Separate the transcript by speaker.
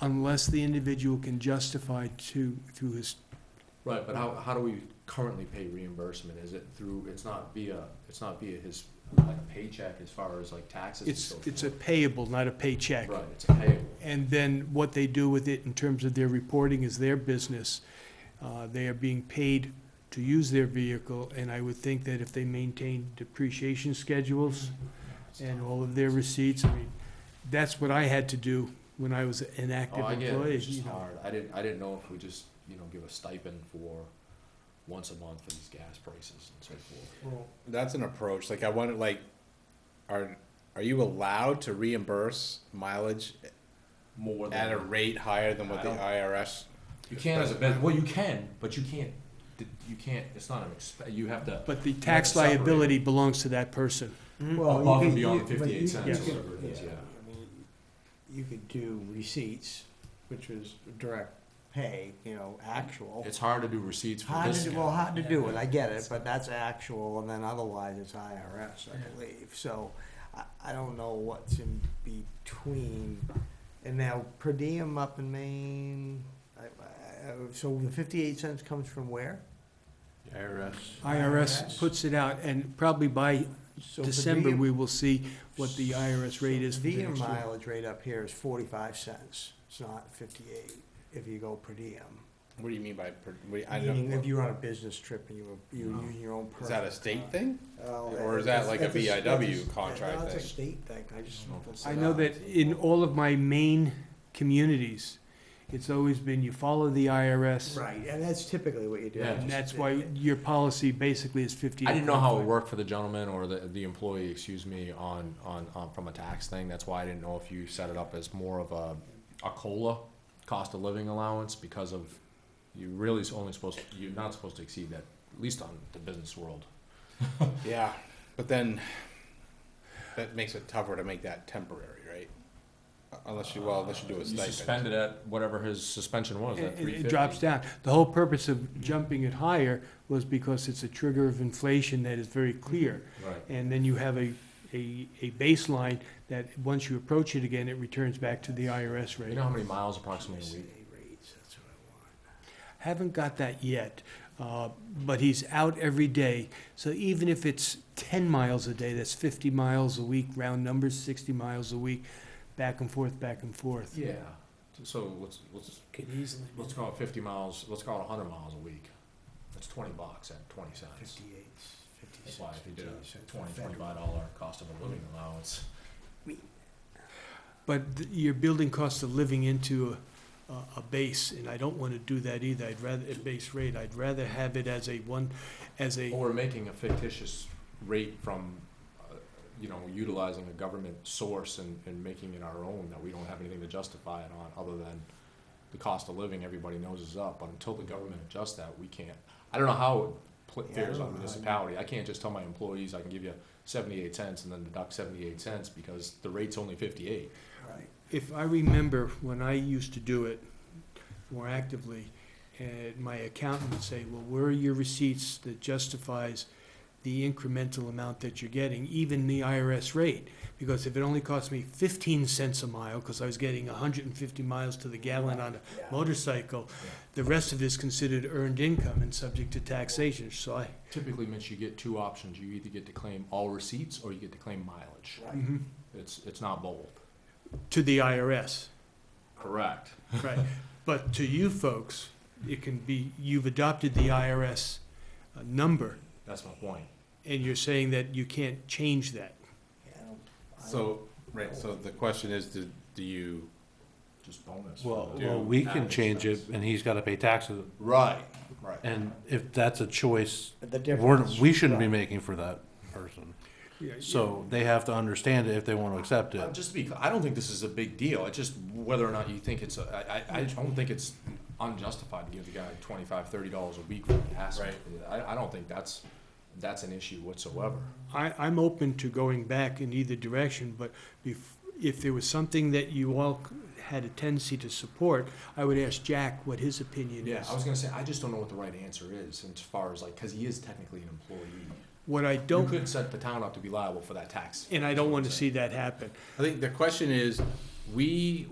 Speaker 1: unless the individual can justify to, through his,
Speaker 2: Right, but how, how do we currently pay reimbursement? Is it through, it's not via, it's not via his, like a paycheck as far as like taxes and
Speaker 1: it's,
Speaker 2: so forth?
Speaker 1: it's a payable, not a paycheck.
Speaker 2: Right, it's payable.
Speaker 1: And then what they do with it in terms of their reporting is their business. Uh, They are being paid to use their vehicle, and I would think that if they maintain depreciation schedules and all of their receipts, I mean, that's what I had to do when I was an active
Speaker 2: Oh, I get it,
Speaker 1: employee.
Speaker 2: it's just
Speaker 1: you know.
Speaker 2: hard. I didn't, I didn't know if we just, you know, give a stipend for once a month for these gas prices and so forth.
Speaker 3: That's an approach. Like I wonder, like, are are you allowed to reimburse mileage
Speaker 2: More than.
Speaker 3: at a rate higher than what the
Speaker 2: I don't-
Speaker 3: IRS?
Speaker 2: You can as a business, well, you can, but you can't, you can't, it's not an exp, you have to,
Speaker 1: But the tax
Speaker 2: separate it.
Speaker 1: liability belongs to that person.
Speaker 4: Well,
Speaker 2: Mm-hmm. Above
Speaker 4: you
Speaker 2: and
Speaker 4: could-
Speaker 2: beyond
Speaker 4: you-
Speaker 2: the
Speaker 4: but
Speaker 2: 58
Speaker 4: you-
Speaker 2: cents
Speaker 1: or
Speaker 4: you
Speaker 2: whatever it
Speaker 4: could-
Speaker 2: is, yeah.
Speaker 4: I mean, You could do receipts, which was direct pay, you know, actual.
Speaker 2: it's hard to do receipts for
Speaker 4: Hard
Speaker 2: this.
Speaker 4: to, do-
Speaker 2: guy.
Speaker 4: well, hard to do it, I get it, but that's actual, and then otherwise it's IRS, I believe, so I, I don't know what's in between. And now, per diem up in Maine, I, I, so the fifty-eight cents comes from where?
Speaker 3: IRS.
Speaker 1: IRS puts it out, and probably by
Speaker 4: So per
Speaker 1: December,
Speaker 4: diem-
Speaker 1: we will see what the IRS rate is for the
Speaker 4: Diem
Speaker 1: next year.
Speaker 4: mileage rate up here is forty-five cents, it's not fifty-eight if you go per diem.
Speaker 3: What do you mean by? Per, what, I
Speaker 4: Meaning if
Speaker 3: don't.
Speaker 4: you're on a business trip and you were, you were using your own
Speaker 3: Is
Speaker 4: personal
Speaker 3: that a state thing?
Speaker 4: Well,
Speaker 3: Or is that
Speaker 4: it's-
Speaker 3: like a
Speaker 4: it's s- that's
Speaker 3: VIW
Speaker 4: s-
Speaker 3: contract
Speaker 4: no, it's a
Speaker 3: thing?
Speaker 4: state thing, I just.
Speaker 2: I don't know if it's
Speaker 1: I know that in all of my main communities, it's always been you follow the IRS.
Speaker 4: Right, and that's typically what you do.
Speaker 2: Yeah.
Speaker 1: And that's why your policy basically is fifty.
Speaker 2: I didn't know how it worked for the gentleman or the, the employee, excuse me, on, on, on, from a tax thing. That's why I didn't know if you set it up as more of a, a COLA, cost of living allowance, because of, you really is only supposed, you're not supposed to exceed that, at least on the business world.
Speaker 3: Yeah, but then that makes it tougher to make that temporary, right? Unless you well, unless you do a
Speaker 2: Uh, You
Speaker 3: stipend.
Speaker 2: suspend it at whatever his suspension was,
Speaker 1: It
Speaker 2: at
Speaker 1: it-
Speaker 2: three
Speaker 1: it
Speaker 2: fifty.
Speaker 1: drops down. The whole purpose of jumping it higher was because it's a trigger of inflation that is very clear.
Speaker 2: Right.
Speaker 1: And then you have a, a, a baseline that, once you approach it again, it returns back to the IRS
Speaker 2: You
Speaker 1: rate.
Speaker 2: know how many miles approximately a week?
Speaker 4: Rates, that's what I want.
Speaker 1: Haven't got that yet, uh, but he's out every day. So even if it's 10 miles a day, that's 50 miles a week, round numbers, 60 miles a week, back and forth, back and forth.
Speaker 2: Yeah, so let's, let's,
Speaker 1: Could easily.
Speaker 2: let's call it fifty miles, let's call it hundred miles a week. That's twenty bucks at twenty cents.
Speaker 4: Fifty-eight,
Speaker 2: That's
Speaker 4: fifty-six,
Speaker 2: why if you did
Speaker 4: fifty-eight
Speaker 2: a
Speaker 4: cents.
Speaker 2: twenty, twenty-five dollar cost of a living allowance.
Speaker 1: But th- you're building cost of living into a, a- a base, and I don't want to do that either. I'd rather, a base rate, I'd rather have it as a one, as a,
Speaker 2: Or making a fictitious rate from, uh, you know, utilizing a government source and, and making it our own, that we don't have anything to justify it on, other than the cost of living, everybody knows is up, but until the government adjusts that, we can't. I don't know how it pl-
Speaker 4: Yeah, I
Speaker 2: fares on
Speaker 4: don't know how you-
Speaker 2: municipality, I can't just tell my employees, I can give you seventy-eight cents and then deduct seventy-eight cents, because the rate's only fifty-eight.
Speaker 4: Right.
Speaker 1: if I remember when I used to do it more actively, and my accountant would say, well, where are your receipts that justifies the incremental amount that you're getting, even the IRS rate? Because if it only cost me fifteen cents a mile, because I was getting hundred and fifty miles to the gallon on
Speaker 4: Yeah.
Speaker 1: a motorcycle, the rest of it is considered earned income and subject to taxation, so I,
Speaker 2: Typically, Mitch, you get two options, you either get to claim all receipts, or you get to claim mileage,
Speaker 3: Mm.
Speaker 4: Right.
Speaker 1: mhm,
Speaker 2: it's, it's not both.
Speaker 1: to the IRS.
Speaker 2: Correct.
Speaker 1: Right, but to you folks, it can be, you've adopted the IRS uh, number,
Speaker 2: That's my point.
Speaker 1: and you're saying that you can't change that.
Speaker 4: Yeah, I don't- I don't-
Speaker 3: So right. So the question is, do, do you?
Speaker 2: Just bonus.
Speaker 5: Well,
Speaker 3: Do
Speaker 5: well, we can
Speaker 2: average
Speaker 5: change it,
Speaker 2: taxes.
Speaker 5: and he's gotta pay taxes,
Speaker 3: Right. Right.
Speaker 5: and if that's a choice,
Speaker 4: The
Speaker 5: we're,
Speaker 4: difference.
Speaker 5: we shouldn't be
Speaker 4: right.
Speaker 5: making for that person. So they have to understand it if they wanna accept
Speaker 2: Uh,
Speaker 5: it.
Speaker 2: Just to be, cl- I don't think this is a big deal. It's just whether or not you think it's, a- I, I, I don't think it's unjustified to give the guy twenty-five, thirty dollars a week for the pass.
Speaker 3: Right.
Speaker 2: I, I don't think that's, that's an issue whatsoever.
Speaker 1: I, I'm open to going back in either direction, but if, if there was something that you all had a tendency to support, I would ask Jack what his opinion
Speaker 2: Yeah,
Speaker 1: is.
Speaker 2: I was gonna say, I just don't know what the right answer is as far as like, cause he is technically an employee.
Speaker 1: What I
Speaker 2: You
Speaker 1: don't,
Speaker 2: could set the town up to be liable for that tax.
Speaker 1: and I don't want to see that happen.
Speaker 3: I think the question is, we